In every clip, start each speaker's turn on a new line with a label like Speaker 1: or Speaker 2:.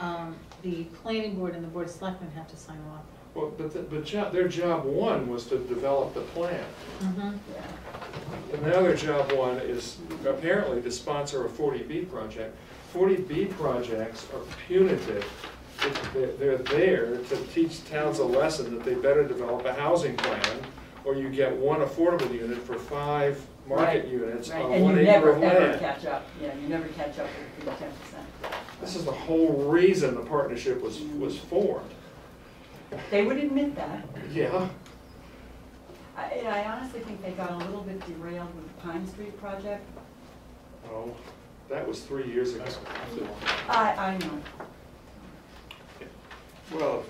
Speaker 1: um, the planning board and the board of selectmen have to sign off.
Speaker 2: Well, but, the- but job, their job one was to develop the plan.
Speaker 1: Mhm.
Speaker 2: And the other job one is apparently to sponsor a forty B project. Forty B projects are punitive. They're, they're there to teach towns a lesson that they better develop a housing plan, or you get one affordable unit for five market
Speaker 3: Right,
Speaker 2: units
Speaker 3: right,
Speaker 2: on one
Speaker 3: And you
Speaker 2: acre
Speaker 3: never,
Speaker 2: of
Speaker 3: ever
Speaker 2: land.
Speaker 3: catch up, yeah, you never catch up with the ten percent.
Speaker 2: This is the whole reason the partnership was, was formed.
Speaker 3: They would admit that.
Speaker 2: Yeah,
Speaker 3: I, and I honestly think they got a little bit derailed with the Pine Street project.
Speaker 2: oh, that was three years ago.
Speaker 3: I, I know.
Speaker 4: Well,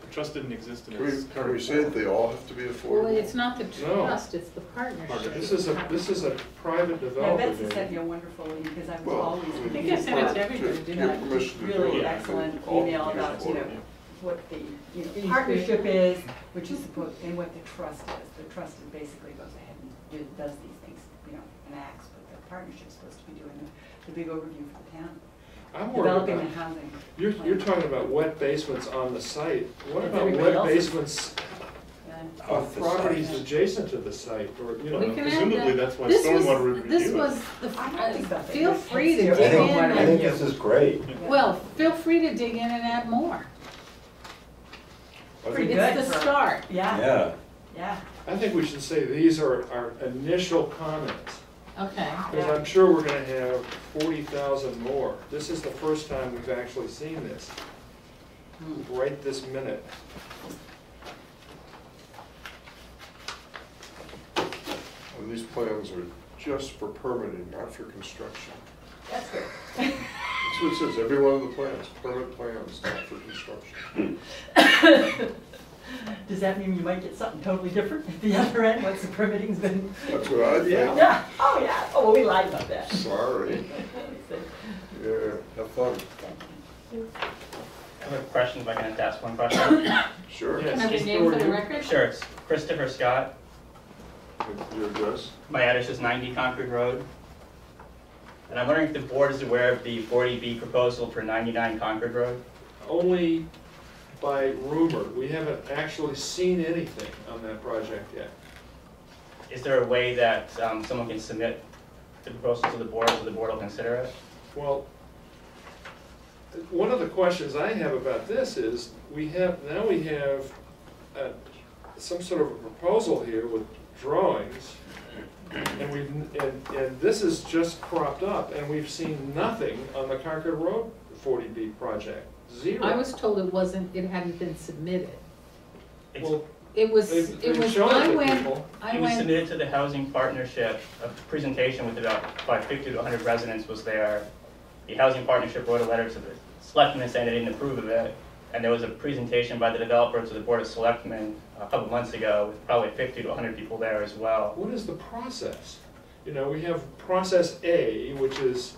Speaker 4: the trust didn't exist in
Speaker 5: Can we,
Speaker 4: its
Speaker 5: can we
Speaker 4: current
Speaker 5: say that
Speaker 4: form.
Speaker 5: they all have to be
Speaker 1: Well,
Speaker 5: affordable?
Speaker 1: it's not the
Speaker 2: No.
Speaker 1: trust, it's the partnership.
Speaker 2: This is a, this is a private
Speaker 3: Now
Speaker 2: developer.
Speaker 3: Betsy
Speaker 2: doing it.
Speaker 3: sent me a wonderful email, because I was
Speaker 5: Well,
Speaker 3: always.
Speaker 5: I mean,
Speaker 1: think I sent it to
Speaker 5: for-
Speaker 1: everybody,
Speaker 5: to
Speaker 1: didn't
Speaker 5: give
Speaker 1: I?
Speaker 5: permission to do
Speaker 3: Really
Speaker 5: it, I
Speaker 3: excellent
Speaker 5: think all
Speaker 3: email
Speaker 5: communities
Speaker 3: about, you
Speaker 5: want it.
Speaker 3: know, what the, you know, partnership is, which is supposed, and what the trust is. The trust is basically goes ahead and do- does these things, you know, and acts, but the partnership's supposed to be doing the, the big overview for the town,
Speaker 2: I'm worried
Speaker 3: developing
Speaker 2: about
Speaker 3: the housing.
Speaker 2: You're,
Speaker 3: plan.
Speaker 2: you're talking about wet basements on the site. What
Speaker 3: That's
Speaker 2: about
Speaker 3: everybody
Speaker 2: wet
Speaker 3: else's.
Speaker 2: basements
Speaker 3: Yeah.
Speaker 2: of properties adjacent to the site or, you
Speaker 1: We
Speaker 2: know?
Speaker 1: can add
Speaker 4: Presumably,
Speaker 1: that.
Speaker 4: that's why
Speaker 1: This was-
Speaker 4: stormwater review.
Speaker 1: This was, the-
Speaker 3: I don't think
Speaker 1: uh,
Speaker 3: that they
Speaker 1: feel
Speaker 3: would
Speaker 1: free to
Speaker 3: consider
Speaker 1: dig
Speaker 6: I think,
Speaker 1: in,
Speaker 3: stormwater
Speaker 6: I think
Speaker 1: and-
Speaker 6: this is great.
Speaker 3: Yeah.
Speaker 1: well, feel free to dig in and add more.
Speaker 5: I
Speaker 3: Pretty
Speaker 5: think-
Speaker 3: good
Speaker 1: It's the
Speaker 3: for-
Speaker 1: start.
Speaker 3: Yeah,
Speaker 6: Yeah,
Speaker 3: yeah.
Speaker 2: I think we should say these are our initial comments.
Speaker 1: Okay,
Speaker 2: Because I'm sure we're gonna have forty thousand more. This is the first time we've actually seen this,
Speaker 1: Hmm.
Speaker 2: right this minute.
Speaker 5: And these plans are just for permitting, not for construction.
Speaker 3: That's good.
Speaker 5: That's what it says, every one of the plans, permit plans, not for construction.
Speaker 3: Does that mean you might get something totally different at the other end once the permitting's been?
Speaker 5: That's what I think.
Speaker 3: Yeah, oh, yeah, oh, well, we lied about that.
Speaker 5: Sorry, yeah, have fun,
Speaker 7: I have a question, if I can have to ask one question.
Speaker 5: sure.
Speaker 2: Yes.
Speaker 1: can I have your name for the record?
Speaker 7: Sure, it's Christopher Scott.
Speaker 5: Your address?
Speaker 7: My address is 90 Concord Road. And I'm wondering if the board is aware of the 40B proposal for 99 Concord Road?
Speaker 2: Only by rumor. We haven't actually seen anything on that project yet.
Speaker 7: Is there a way that um, someone can submit the proposal to the board, so the board will consider it?
Speaker 2: Well, one of the questions I have about this is, we have, now we have uh, some sort of a proposal here with drawings, and we've, and, and this is just cropped up, and we've seen nothing on the Concord Road forty B project, zero.
Speaker 1: I was told it wasn't, it hadn't been submitted.
Speaker 7: It's-
Speaker 2: Well,
Speaker 1: It was,
Speaker 2: they've,
Speaker 1: it
Speaker 2: they've
Speaker 1: was,
Speaker 2: shown
Speaker 1: I
Speaker 2: it to
Speaker 1: went,
Speaker 2: people.
Speaker 1: I
Speaker 7: It was
Speaker 1: went,
Speaker 7: submitted to the Housing Partnership, a presentation with about, about 50 to 100 residents was there. The Housing Partnership wrote a letter to the selectmen saying they didn't approve of it. And there was a presentation by the developer to the Board of Selectmen uh, a couple months ago with probably 50 to 100 people there as well.
Speaker 2: What is the process? You know, we have process A, which is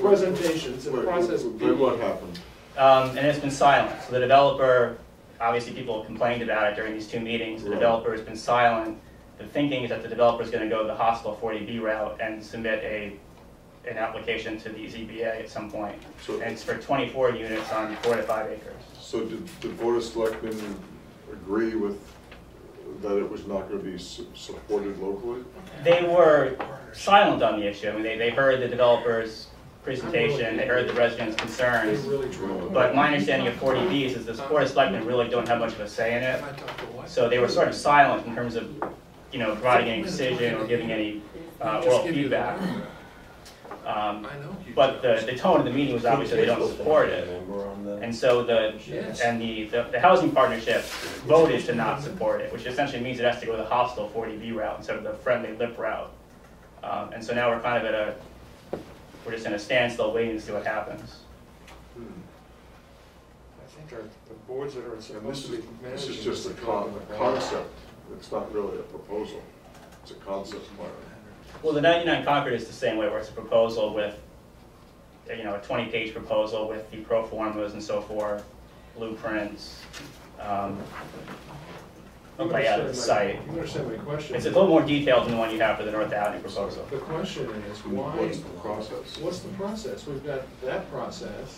Speaker 2: presentations, and
Speaker 5: Wait,
Speaker 2: process B.
Speaker 5: Then what happened?
Speaker 7: Um, And it's been silent. So the developer, obviously people complained about it during these two meetings. The
Speaker 5: Right.
Speaker 7: developer has been silent. The thinking is that the developer is going to go the hostile 40B route and submit a, an application to the ZBA at some point.
Speaker 5: So,
Speaker 7: And it's for 24 units on four to five acres.
Speaker 5: so did the board of selectmen agree with, that it was not gonna be su- supported locally?
Speaker 7: They were silent on the issue. I mean, they, they heard the developer's presentation, they heard the residents'
Speaker 2: They
Speaker 7: concerns.
Speaker 2: really drew.
Speaker 7: But my understanding of 40Bs is the Board of Selectmen really don't have much of a say in it.
Speaker 2: I talked to what?
Speaker 7: So they were sort of silent in terms of, you know, providing any decision or giving any uh, oral feedback. Um,
Speaker 2: I know.
Speaker 7: But the, the tone of the meeting was obviously they don't support it.
Speaker 6: Remember on the-
Speaker 7: And so the,
Speaker 2: Yes.
Speaker 7: and the, the the housing partnership voted to not support it, which essentially means it has to go the hostile forty B route instead of the friendly lip route. Um, and so now we're kind of at a, we're just in a standstill waiting to see what happens.
Speaker 2: Hmm. I think our, the boards that are
Speaker 5: And this
Speaker 2: supposed to
Speaker 5: is,
Speaker 2: be
Speaker 5: this
Speaker 2: managing.
Speaker 5: is just a con, a concept, it's not really a proposal, it's a concept plan.
Speaker 7: Well, the ninety-nine Concord is the same way, where it's a proposal with, you know, a twenty-page proposal with the pro formas and so forth, blueprints, um, a
Speaker 2: You
Speaker 7: layout of Oh, the
Speaker 2: understand
Speaker 7: site.
Speaker 2: my- You understand my question?
Speaker 7: It's a little more detailed than the one you have for the North Avenue proposal.
Speaker 2: The question is, why,
Speaker 5: What's the process?
Speaker 2: what's the process? We've got that process.